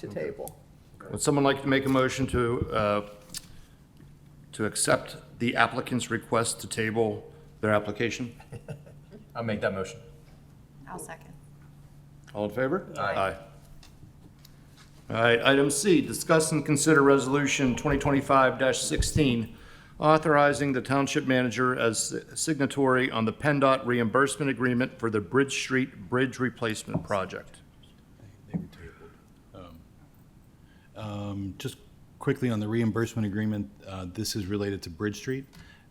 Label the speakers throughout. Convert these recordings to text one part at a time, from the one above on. Speaker 1: to table.
Speaker 2: Would someone like to make a motion to, uh, to accept the applicant's request to table their application?
Speaker 3: I'll make that motion.
Speaker 4: I'll second.
Speaker 2: All in favor?
Speaker 3: Aye.
Speaker 2: All right, item C, discuss and consider resolution 2025-16, authorizing the township manager as signatory on the PennDOT reimbursement agreement for the Bridge Street Bridge Replacement Project.
Speaker 5: Um, Just quickly on the reimbursement agreement, uh, this is related to Bridge Street.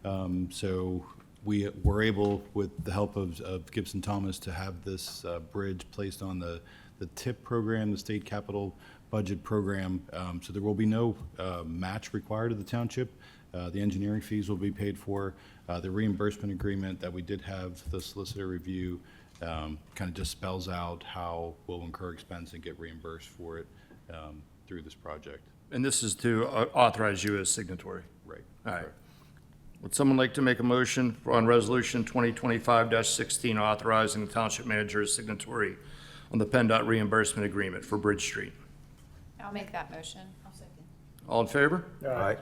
Speaker 5: Um, So we were able, with the help of of Gibson Thomas, to have this uh, bridge placed on the the TIP program, the State Capital Budget Program. Um, So there will be no uh, match required of the township. Uh, The engineering fees will be paid for. Uh, The reimbursement agreement that we did have the solicitor review kind of just spells out how we'll incur expense and get reimbursed for it um, through this project.
Speaker 2: And this is to uh, authorize you as signatory.
Speaker 5: Right.
Speaker 2: All right. Would someone like to make a motion for- on Resolution 2025-16, authorizing the township manager as signatory on the PennDOT reimbursement agreement for Bridge Street?
Speaker 4: I'll make that motion. I'll second.
Speaker 2: All in favor?
Speaker 3: Aye.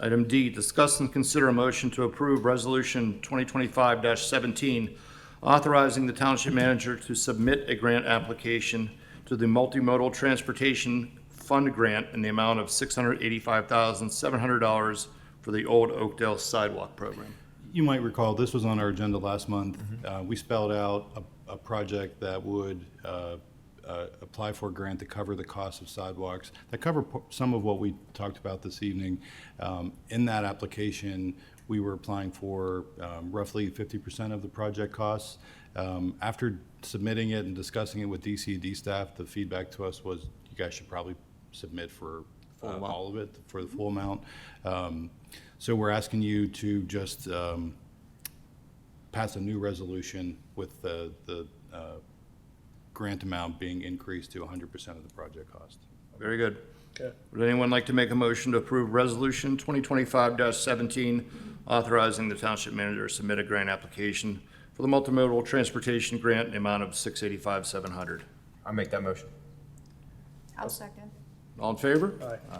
Speaker 2: Item D, discuss and consider a motion to approve Resolution 2025-17, authorizing the township manager to submit a grant application to the Multimodal Transportation Fund Grant in the amount of $685,700 for the Old Oakdale Sidewalk Program.
Speaker 5: You might recall, this was on our agenda last month. Uh, We spelled out a, a project that would uh, uh, apply for a grant to cover the cost of sidewalks, that cover po- some of what we talked about this evening. Um, In that application, we were applying for um, roughly 50% of the project costs. Um, After submitting it and discussing it with DCD staff, the feedback to us was, you guys should probably submit for uh, all of it, for the full amount. Um, So we're asking you to just um, pass a new resolution with the, the uh, grant amount being increased to 100% of the project cost.
Speaker 2: Very good. Would anyone like to make a motion to approve Resolution 2025-17, authorizing the township manager to submit a grant application for the multimodal transportation grant in the amount of $685,700?
Speaker 3: I'll make that motion.
Speaker 4: I'll second.
Speaker 2: All in favor?
Speaker 1: Aye.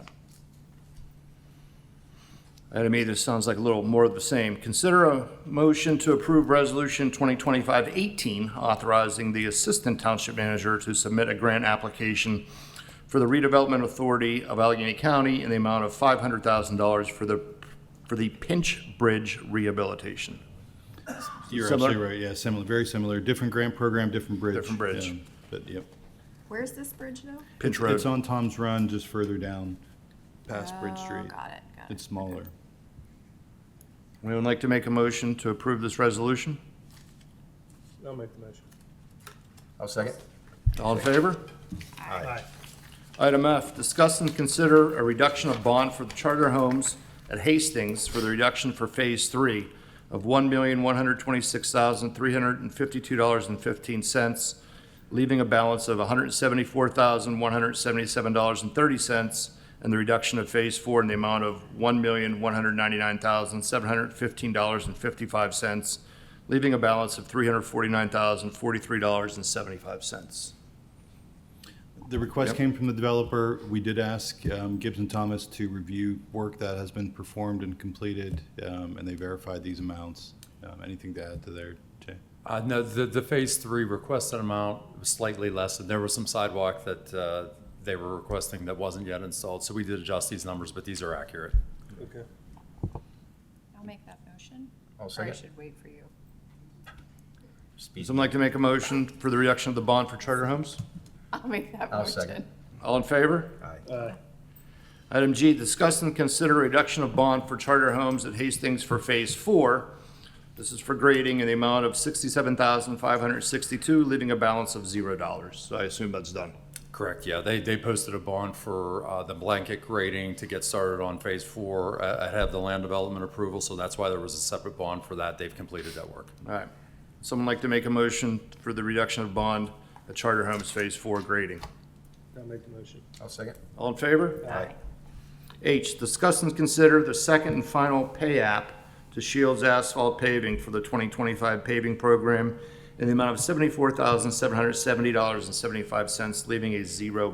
Speaker 2: Item E, this sounds like a little more of the same. Consider a motion to approve Resolution 2025-18, authorizing the Assistant Township Manager to submit a grant application for the Redevelopment Authority of Allegheny County in the amount of $500,000 for the, for the Pinch Bridge rehabilitation.
Speaker 5: You're
Speaker 2: Similar?
Speaker 5: absolutely right, yeah, similar, very similar, different grant program, different bridge.
Speaker 2: Different bridge.
Speaker 5: Um, But, yep.
Speaker 4: Where's this bridge now?
Speaker 2: Pinch
Speaker 5: It's
Speaker 2: Road.
Speaker 5: on Tom's Run, just further down, past Bridge
Speaker 4: Oh,
Speaker 5: Street.
Speaker 4: got it, got it.
Speaker 5: It's smaller.
Speaker 2: Anyone like to make a motion to approve this resolution?
Speaker 1: I'll make the motion.
Speaker 3: I'll second.
Speaker 2: All in favor?
Speaker 1: Aye.
Speaker 2: Item F, discuss and consider a reduction of bond for the charter homes at Hastings for the reduction for Phase Three of one million, one hundred twenty-six thousand, three hundred and fifty-two dollars and fifteen cents, leaving a balance of one hundred seventy-four thousand, one hundred seventy-seven dollars and thirty cents, and the reduction of Phase Four in the amount of one million, one hundred ninety-nine thousand, seven hundred fifteen dollars and fifty-five cents, leaving a balance of three hundred forty-nine thousand, forty-three dollars and seventy-five cents.
Speaker 5: The request came from the developer. We did ask um, Gibson Thomas to review work that has been performed and completed, um, and they verified these amounts. Um, Anything to add to there, Jay?
Speaker 6: Uh, no, the, the phase three requested amount was slightly less, and there was some sidewalk that, uh, they were requesting that wasn't yet installed, so we did adjust these numbers, but these are accurate.
Speaker 1: Okay.
Speaker 4: I'll make that motion.
Speaker 3: I'll
Speaker 4: Or I
Speaker 3: second.
Speaker 4: should wait for you.
Speaker 3: Speed.
Speaker 2: Someone like to make a motion for the reduction of the bond for charter homes?
Speaker 4: I'll make that
Speaker 3: I'll
Speaker 4: motion.
Speaker 3: second.
Speaker 2: All in favor?
Speaker 3: Aye.
Speaker 1: Aye.
Speaker 2: Item G, discuss and consider reduction of bond for charter homes at Hastings for Phase Four. This is for grading in the amount of sixty-seven thousand five hundred sixty-two, leaving a balance of zero dollars. So I assume that's done.
Speaker 6: Correct, yeah, they, they posted a bond for, uh, the blanket grading to get started on phase four, uh, ahead of the land development approval, so that's why there was a separate bond for that, they've completed that work.
Speaker 2: All right. Someone like to make a motion for the reduction of bond at charter homes Phase Four grading?
Speaker 1: I'll make the motion.
Speaker 3: I'll second.
Speaker 2: All in favor?
Speaker 3: Aye.
Speaker 2: H, discuss and consider the second and final pay app to Shields Asphalt Paving for the 2025 paving program in the amount of $74,770.75, leaving a zero